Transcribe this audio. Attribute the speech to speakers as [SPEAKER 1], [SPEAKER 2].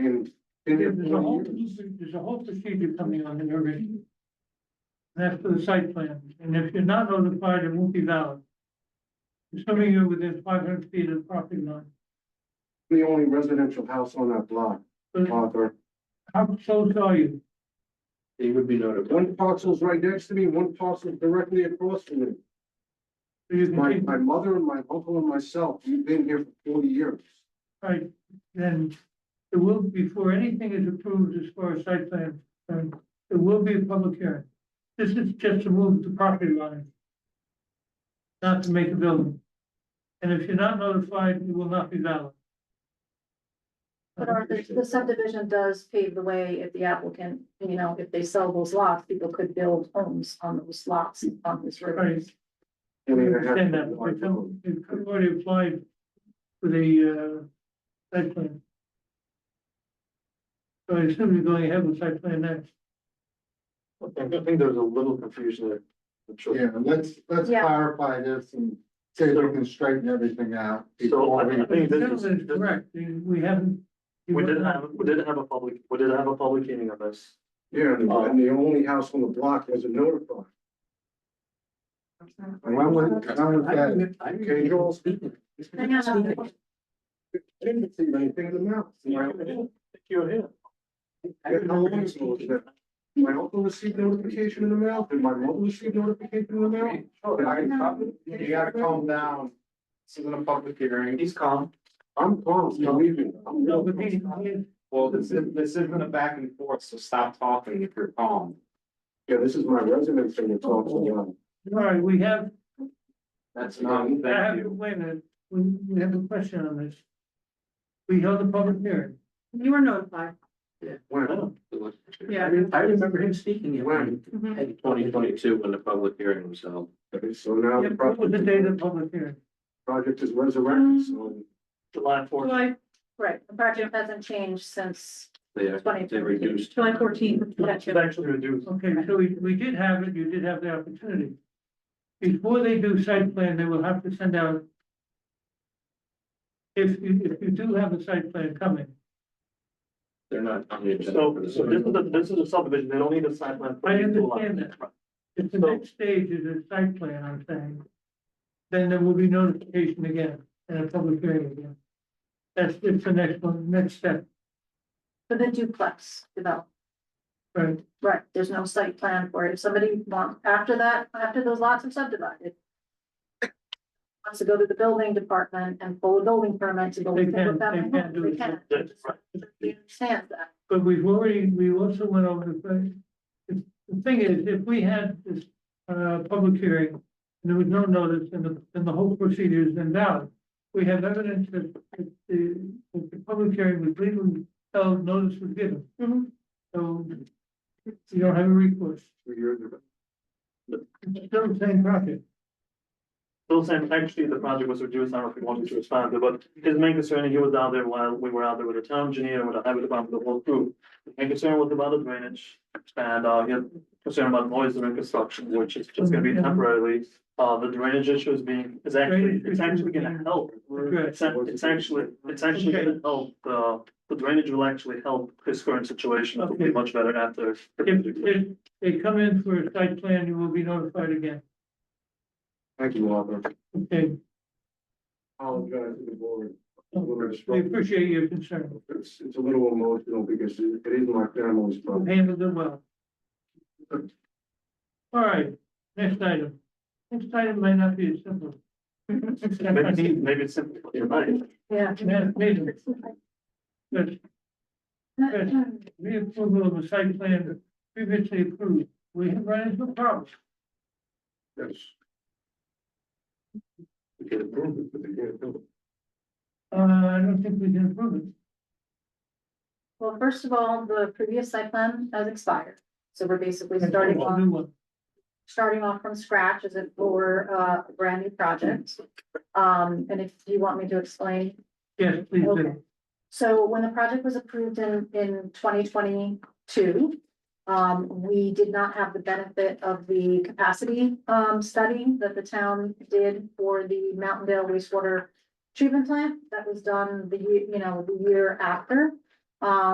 [SPEAKER 1] There's a whole,
[SPEAKER 2] Well,
[SPEAKER 1] there's a whole procedure coming on here already. That's for the site plan, and if you're not notified, it won't be valid. Assuming you're within five hundred feet of the property line,
[SPEAKER 2] The only residential house on that block,
[SPEAKER 1] but
[SPEAKER 2] Arthur.
[SPEAKER 1] how close are you?
[SPEAKER 3] They would be notified.
[SPEAKER 2] One parcel's right next to me, one parcel's directly across from me.
[SPEAKER 1] So you
[SPEAKER 2] My,
[SPEAKER 1] can,
[SPEAKER 2] my mother and my uncle and myself, we've been here for forty years.
[SPEAKER 1] right, then, it will, before anything is approved as far as site plan, um, there will be a public hearing. This is just to move the property line. Not to make a building. And if you're not notified, it will not be valid.
[SPEAKER 4] But Arthur, the subdivision does pave the way if the applicant, you know, if they sell those lots, people could build homes on those lots on this road.
[SPEAKER 1] Right.
[SPEAKER 2] I mean, I have-
[SPEAKER 1] Understand that, but some- they've already applied for the, uh, site plan. So I assume you're going ahead with site plan next.
[SPEAKER 3] I think there was a little confusion there. I'm sure.
[SPEAKER 5] Yeah, let's, let's
[SPEAKER 4] Yeah.
[SPEAKER 5] clarify this and see if we can straighten everything out.
[SPEAKER 3] So
[SPEAKER 5] before
[SPEAKER 3] I think- I
[SPEAKER 5] we-
[SPEAKER 3] think this
[SPEAKER 1] Gentlemen,
[SPEAKER 3] is, this-
[SPEAKER 1] Correct, we haven't.
[SPEAKER 3] we didn't have, we didn't have a public, we didn't have a public hearing on this.
[SPEAKER 2] Yeah, and
[SPEAKER 3] uh,
[SPEAKER 2] and the only house on the block wasn't notified.
[SPEAKER 5] When was, when was that?
[SPEAKER 2] Can you all speak?
[SPEAKER 4] Hang on.
[SPEAKER 2] I didn't see anything in the mouth. My uncle-
[SPEAKER 3] You're here.
[SPEAKER 2] yeah, how long ago was that? My uncle received notification in the mail, and my mother received notification in the mail. And I-
[SPEAKER 5] You gotta calm down. This isn't a public hearing.
[SPEAKER 3] He's calm.
[SPEAKER 2] I'm calm, believe me. I'm
[SPEAKER 1] No,
[SPEAKER 2] real
[SPEAKER 1] but these,
[SPEAKER 2] calm.
[SPEAKER 5] Well, this is, this isn't a back and forth, so stop talking if you're calm.
[SPEAKER 2] Yeah, this is my residence and it's also, mine.
[SPEAKER 1] all right, we have,
[SPEAKER 5] That's not,
[SPEAKER 1] I have, wait a minute, we, we have a question on this. We held a public hearing.
[SPEAKER 4] You were notified.
[SPEAKER 2] when,
[SPEAKER 4] Yeah.
[SPEAKER 3] I remember him speaking
[SPEAKER 2] when,
[SPEAKER 3] in twenty twenty-two when the public hearing was held.
[SPEAKER 2] Okay, so now the
[SPEAKER 1] What was the date of the
[SPEAKER 2] project,
[SPEAKER 1] public hearing?
[SPEAKER 2] project is resurrected, so.
[SPEAKER 3] July fourth,
[SPEAKER 4] Right, the project hasn't changed since
[SPEAKER 3] they,
[SPEAKER 4] twenty.
[SPEAKER 3] they reduced.
[SPEAKER 4] July fourteenth.
[SPEAKER 3] It's actually reduced.
[SPEAKER 1] Okay, so we, we did have it, you did have the opportunity. Before they do site plan, they will have to send out. If you, if you do have a site plan coming,
[SPEAKER 3] They're not on the agenda. So, so this is, a- this is a subdivision, they don't need a site plan.
[SPEAKER 1] I understand that. if the next stage is a site plan, I'm saying. Then there will be notification again and a public hearing again. That's, it's the next one, next step,
[SPEAKER 4] For the duplex development,
[SPEAKER 1] right?
[SPEAKER 4] right, there's no site plan for it. If somebody wants, after that, after those lots are subdivided. Wants to go to the building department and pull a building permit to go.
[SPEAKER 1] They can- they can do it.
[SPEAKER 4] They can.
[SPEAKER 3] That's right.
[SPEAKER 4] We understand that.
[SPEAKER 1] But we've already, we also went over the thing. The the thing is, if we had this, uh, public hearing, and there was no notice, and the, and the whole procedure is invalid. We have evidence that, that the, that the public hearing was legally held, notice was given, so you don't have a recourse.
[SPEAKER 2] Two years ago.
[SPEAKER 1] It's still the same project.
[SPEAKER 3] Bill saying actually the project was reduced, I don't know if we wanted to expand it, but his main concern, he was out there while we were out there with the town engineer, with the highway department, the whole crew. His main concern was about the drainage and uh he had concern about noise during construction, which is just gonna be
[SPEAKER 1] Mm-hmm.
[SPEAKER 3] temporarily. Uh the drainage issue is being, is actually, it's actually gonna help.
[SPEAKER 1] Good.
[SPEAKER 3] It's ac- it's actually, it's actually gonna help, uh the drainage will actually help his current situation, it'll be
[SPEAKER 1] Okay.
[SPEAKER 3] much better after.
[SPEAKER 1] If, if they come in for a site plan, you will be notified again,
[SPEAKER 2] Thank you, Arthur.
[SPEAKER 1] okay?
[SPEAKER 2] Apologize to the board.
[SPEAKER 1] We appreciate your concern,
[SPEAKER 2] It's, it's a little emotional because it it is my family's
[SPEAKER 1] you
[SPEAKER 2] problem.
[SPEAKER 1] handled it well. All right, next item. Next item might not be as simple.
[SPEAKER 3] Maybe it's- maybe it's simple, you're right.
[SPEAKER 4] Yeah.
[SPEAKER 1] Next meeting, but reapproval of a site plan previously approved, we have run into problems.
[SPEAKER 2] Yes. We can approve it, but they can't do it.
[SPEAKER 1] Uh, I don't think we can approve it.
[SPEAKER 4] Well, first of all, the previous site plan has expired, so we're basically starting
[SPEAKER 1] A
[SPEAKER 4] off,
[SPEAKER 1] New one,
[SPEAKER 4] starting off from scratch as if for uh, a brand new project. Um, and if you want me to explain,
[SPEAKER 1] yes, please
[SPEAKER 4] Okay.
[SPEAKER 1] do.
[SPEAKER 4] So when the project was approved in, in twenty twenty-two, um, we did not have the benefit of the capacity, um, study that the town did for the Mountaindale wastewater treatment plant that was done the, ye- you know, the year after. Um,